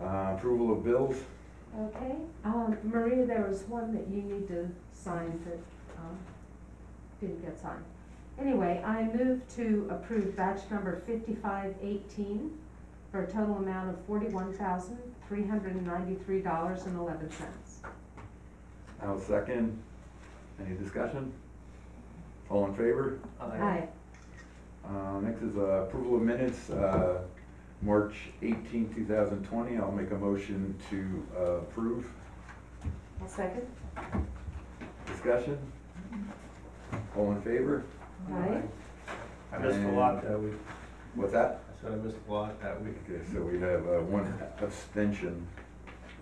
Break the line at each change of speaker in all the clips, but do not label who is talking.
Uh, approval of bills.
Okay, um, Maria, there was one that you need to sign that, um, didn't get signed. Anyway, I move to approve batch number fifty-five eighteen for a total amount of forty-one thousand, three hundred and ninety-three dollars and eleven cents.
I'll second. Any discussion? All in favor?
Aye.
Uh, next is uh, approval of minutes, uh, March 18, thousand twenty. I'll make a motion to uh, approve.
I'll second.
Discussion? All in favor?
Aye.
I missed a lot that week.
What's that?
I said I missed a lot that week.
Okay, so we have uh, one abstention.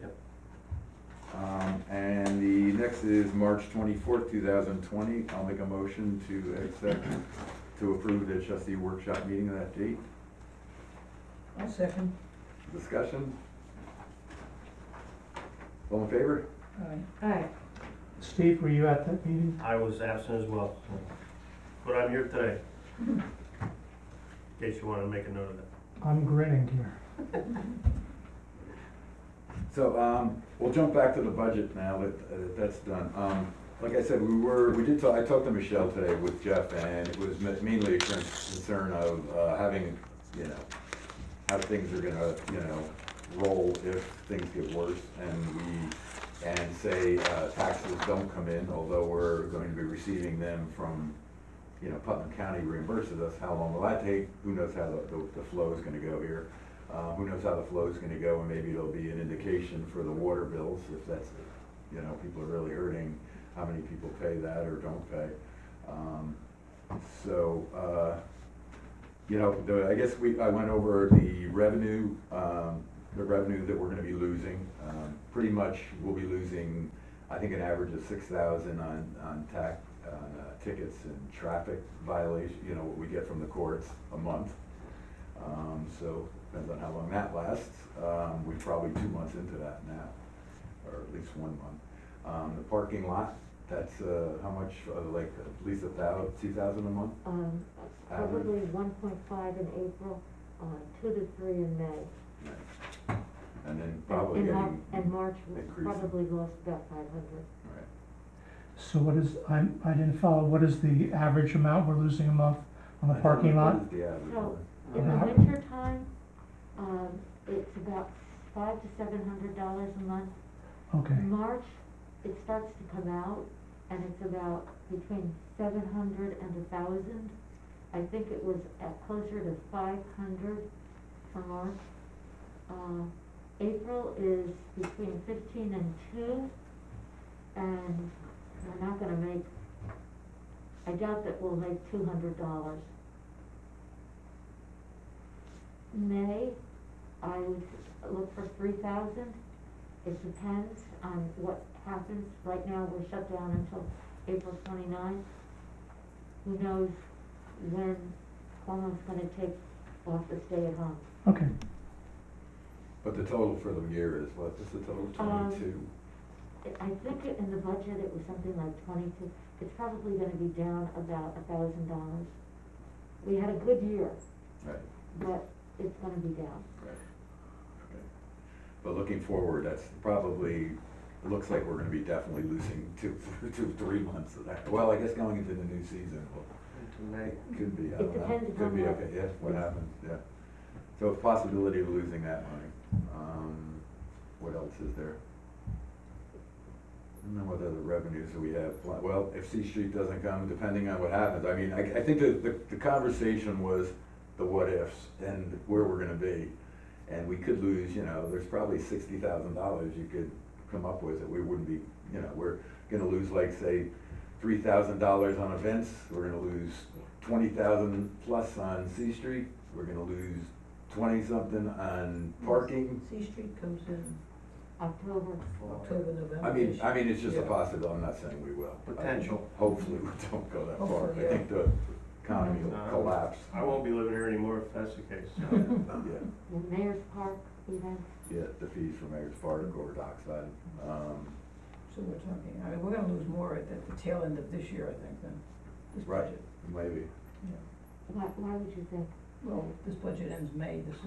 Yep.
Um, And the next is March twenty-fourth, two thousand twenty. I'll make a motion to accept, to approve the trustee workshop meeting on that date.
I'll second.
Discussion? All in favor?
Aye.
Aye.
Steve, were you at that meeting?
I was absent as well, but I'm here today. In case you wanna make a note of that.
I'm grinning here.
So, um, we'll jump back to the budget now that, uh, that's done. Um, like I said, we were, we did talk, I talked to Michelle today with Jeff and it was ma- mainly a con- concern of, uh, having, you know, how things are gonna, you know, roll if things get worse and we, and say, uh, taxes don't come in, although we're going to be receiving them from, you know, Putnam County reimburses us, how long will that take? Who knows how the, the- the flow is gonna go here? Uh, who knows how the flow is gonna go, and maybe it'll be an indication for the water bills, if that's, you know, people are really hurting, how many people pay that or don't pay. Um, So, uh, you know, the, I guess we, I went over the revenue, um, the revenue that we're gonna be losing. Um, Pretty much, we'll be losing, I think, an average of six thousand on, on tax, on uh, tickets and traffic violation, you know, what we get from the courts a month. Um, so depends on how long that lasts. Um, we're probably two months into that now, or at least one month. Um, the parking lot, that's, uh, how much, uh, like, at least a thou, two thousand a month?
Um,
Alan?
probably one point five in April, uh, two to three in May.
Nice. And then probably
Mm-hmm. And-
getting.
and Mar- And March, we
increasing.
probably lost about five hundred.
Right.
So what is, I, I didn't follow, what is the average amount we're losing a month on the
I don't
parking
know what
lot?
is the average
No.
one.
In the
Uh-huh.
winter time, um, it's about five to seven hundred dollars a month.
Okay,
In March, it starts to come out, and it's about between seven hundred and a thousand. I think it was at closer to five hundred for March. Uh, April is between fifteen and two, and we're not gonna make, I doubt that we'll make two hundred dollars. May, I would look for three thousand. It depends on what happens. Right now, we're shut down until April 29th. Who knows when Cuomo's gonna take off the stay-at-home.
okay.
But the total for the year is what? What's the total?
Um,
Twenty-two?
I I think it- in the budget, it was something like 22. It's probably gonna be down about $1,000. We had a good year,
Right,
but it's gonna be down.
right. Okay. But looking forward, that's probably, it looks like we're gonna be definitely losing two, two, three months of that. Well, I guess going into the new season, well, Could be, I
It
don't know.
depends
Could be,
upon what-
okay, yeah, what happens, yeah. So a possibility of losing that money. Um, what else is there? I don't know what other revenues that we have. Pl- Well, if C Street doesn't come, depending on what happens, I mean, I, I think the, the, the conversation was the what ifs and where we're gonna be. And we could lose, you know, there's probably sixty thousand dollars you could come up with that we wouldn't be, you know, we're gonna lose like, say, three thousand dollars on events, we're gonna lose twenty thousand plus on C Street, we're gonna lose twenty something on parking.
C Street comes in
October,
October, November.
I mean, I mean, it's just a
Yeah.
possibility, I'm not saying we will.
Potential.
Hopefully, we don't go that far,
Hopefully,
I think the economy will
No.
collapse.
I won't be living here anymore if that's the case.
Yeah,
so.
the Mayor's Park event.
yeah, the fees for Mayor's Park or Dockside, um,
So we're talking, I mean, we're gonna lose more at, at the tail end of this year, I think, than this
Right.
budget.
maybe.
Yeah.
Why, why would you think
Well, this budget ends May, this is